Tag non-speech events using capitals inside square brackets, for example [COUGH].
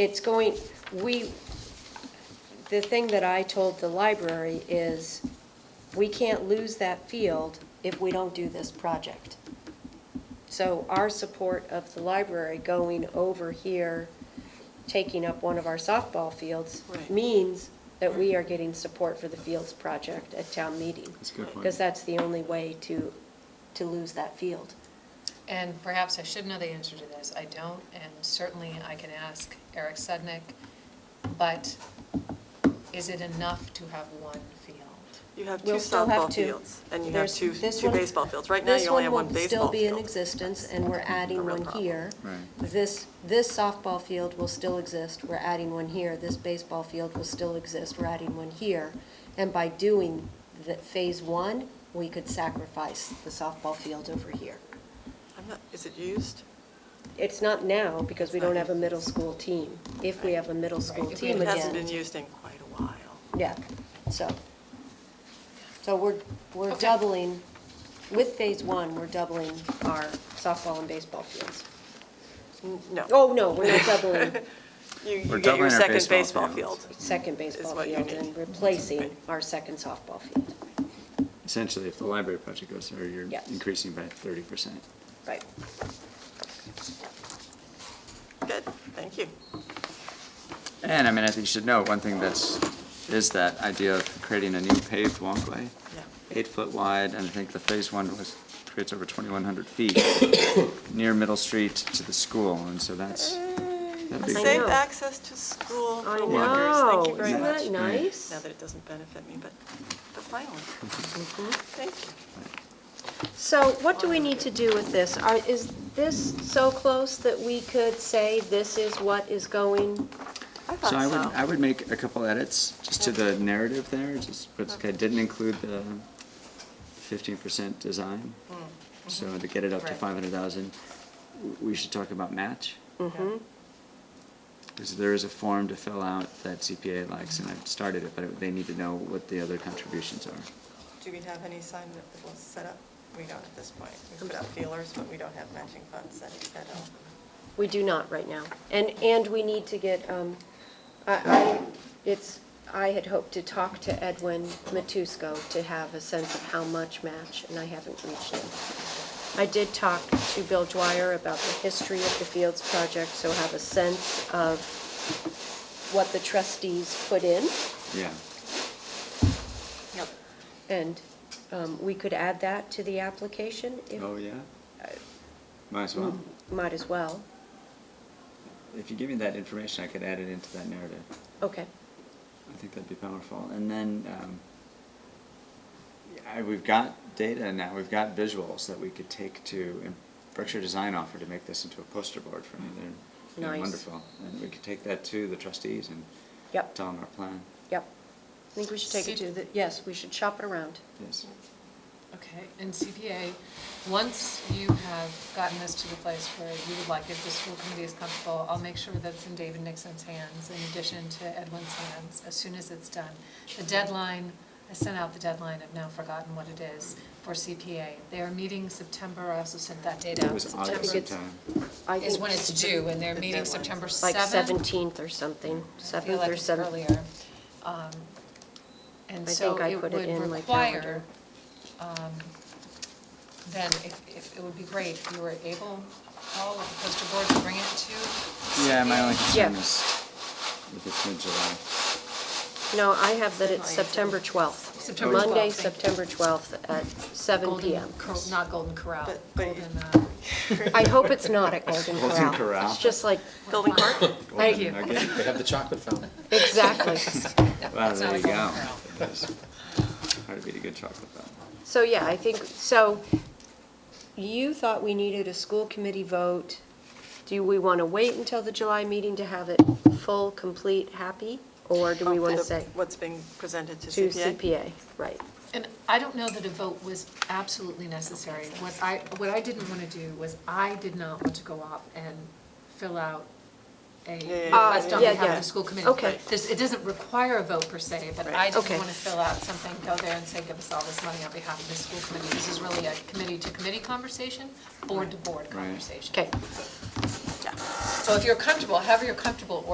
it's going, we, the thing that I told the library is, we can't lose that field if we don't do this project. So our support of the library going over here, taking up one of our softball fields Right. means that we are getting support for the fields project at town meeting. That's a good point. Because that's the only way to, to lose that field. And perhaps I should know the answer to this, I don't, and certainly I can ask Eric Sudnick, but is it enough to have one field? You have two We'll still have softball two. fields, and you have There's- two, this two one- baseball fields. Right now, you only have one baseball This one will still be in field. existence, and we're adding real one problem. here. Right. This, this softball field will still exist, we're adding one here. This baseball field will still exist, we're adding one here. And by doing the phase one, we could sacrifice the softball field over here. I'm not, is it used? It's not now, because we It's not don't have a used. middle school team. If we have a middle school Right, if we team have- It again. hasn't been used in quite a while. Yeah, so, so we're, we're Okay. doubling, with phase one, we're doubling our softball and baseball fields. No, Oh, no, we're not [LAUGHS] doubling you, We're you get doubling your our second baseball baseball fields. field. second baseball what you field need. and replacing our second softball field. Essentially, if the library project goes through, you're Yes. increasing by thirty percent. Right. Good, thank you. And I mean, I think you should note, one thing that's, is that idea of creating a new paved walkway. Yeah. Eight foot wide, and I think the phase one was, creates over twenty-one hundred feet [COUGHS] near Middle Street to the school, and so that's, that'd be Mm, I Safe know. great. access to school for walkers, thank you very Isn't much. that nice? Now that it doesn't benefit me, but, but finally, Mm-hmm. thank you. So what do we need to do with this? Are, is this so close that we could say this is what is going? I So I would, I thought so. would make a couple edits, just to the narrative there, just, but I didn't include the fifteen percent design. Mm-hmm. So to get it up to Right. five hundred thousand, we should talk about match. Mm-hmm. Yeah. Because there is a form to fill out that CPA likes, and I've started it, but it- they need to know what the other contributions are. Do we have any sign that was set up? We don't at this point. We put out feelers, but we don't have matching funds set set up. We do not right now. And, and we need to get, um, I, I, it's, I had hoped to talk to Edwin Matusko to have a sense of how much match, and I haven't reached him. I did talk to Bill Dwyer about the history of the Fields project, so have a sense of what the trustees put in. Yeah. Yep. And, um, we could add that to the application if, Oh, yeah? Might as well. Hmm. might as well. If you give me that information, I could add it into that narrative. Okay. I think that'd be powerful. And then, um, I, we've got data now, we've got visuals that we could take to, and Berkshire Design offered to make this into a poster board for me. They're- They're Nice. wonderful. And we could take that to the trustees and Yep. tell them our plan. Yep. I think we should take it to the, yes, we should shop it around. Yes. Okay, and CPA, once you have gotten this to the place where you would like it, the school committee is comfortable, I'll make sure that's in David Nixon's hands in addition to Edwin's hands, as soon as it's done. The deadline, I sent out the deadline, I've now forgotten what it is, for CPA. They are meeting September, I also sent that date out. It was September August think it's- sometime. I Is think when it's due, and they're The meeting deadline's September Like 7th. 17th or something, I 7th feel like or it's 7th. earlier. Um, And I so think I it put it would in my require, calendar. um, then if, if, it would be great if you were able, all of the poster board to bring it to. Yeah, my only concern Yeah. is if it's mid-July. No, I have that it's September 12th. Oh, September Monday, 12th, thank you. September 12th at seven Golden PM. Cor- Not Golden Corral, But- but- Golden, uh, I hope it's not at Golden Corral. Golden Corral. It's just like, Building [LAUGHS] Court? Thank Golden you. Nugget. They have the chocolate fountain. exactly. Well, not there you a Golden go. Corral. Hard to beat a good chocolate fountain. So, yeah, I think, so you thought we needed a school committee vote. Do we want to wait until the July meeting to have it full, complete, happy? Or do we want to The- say What's being presented to to CPA? CPA? Right. And I don't know that a vote was absolutely necessary. What I, what I didn't want to do was I did not want to go off and fill out a yeah, request on Uh, yeah, behalf of yeah. the school committee. Okay. This, it doesn't require a vote per se, but I Right. didn't Okay. want to fill out something, go there and say, give us all this money on behalf of the school committee. This is really a committee-to-committee conversation, board-to-board conversation. Okay. Yeah. So if you're comfortable, however you're comfortable